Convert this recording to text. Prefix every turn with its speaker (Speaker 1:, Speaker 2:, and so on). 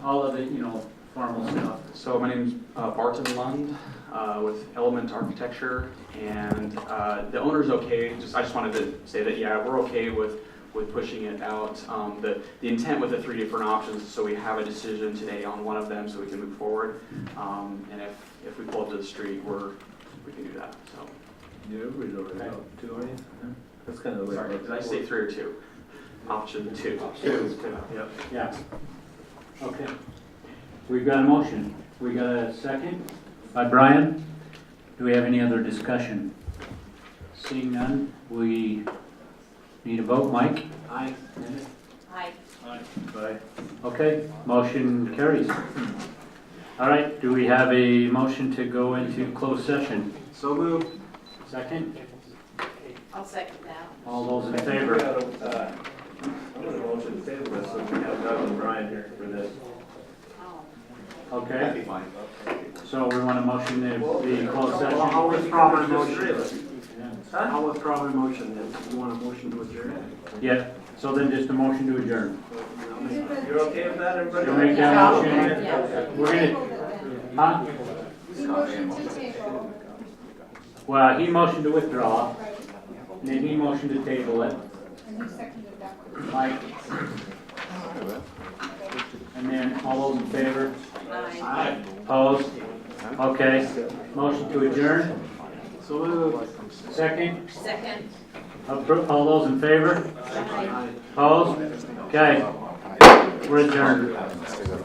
Speaker 1: all of the, you know, formal stuff.
Speaker 2: So my name's uh, Barton Lund uh, with Element Architecture, and uh, the owner's okay, just, I just wanted to say that, yeah, we're okay with, with pushing it out. Um, The, the intent with the three different options, is so we have a decision today on one of them, so we can move forward. Um, And if, if we pull up to the street, we're, we can do that, so.
Speaker 3: Yeah, everybody's already out, two, aren't you? That's kind of.
Speaker 2: Sorry, did I say three or two? Option two. Two.
Speaker 3: Yep.
Speaker 1: Yeah. Okay. We've got a motion. We got a second by Brian. Do we have any other discussion? Seeing none, we need a vote. Mike? Aye.
Speaker 4: Aye.
Speaker 3: Bye.
Speaker 1: Okay, motion carries. All right, do we have a motion to go into closed session?
Speaker 2: So moved.
Speaker 1: Second,
Speaker 4: I'll second that.
Speaker 1: all those in favor?
Speaker 3: Uh, I'm gonna motion to table this, so we have Doug and Brian here for this.
Speaker 4: Oh.
Speaker 1: Okay,
Speaker 2: fine.
Speaker 1: so we want a motion to be closed session.
Speaker 5: Well, I'll withdraw my motion.
Speaker 1: Yeah.
Speaker 5: I'll withdraw my motion, if you want a motion to adjourn.
Speaker 1: Yeah, so then just a motion to adjourn.
Speaker 3: You're okay with that, everybody?
Speaker 1: You'll make that motion? We're gonna, huh? Well, he motioned to withdraw, and then he motioned to table it. Mike? And then all those in favor?
Speaker 4: Aye.
Speaker 1: Opposed? Okay, motion to adjourn,
Speaker 5: So moved.
Speaker 1: second.
Speaker 4: Second.
Speaker 1: Appro- All those in favor?
Speaker 4: Aye.
Speaker 1: Opposed? Okay. We're adjourned.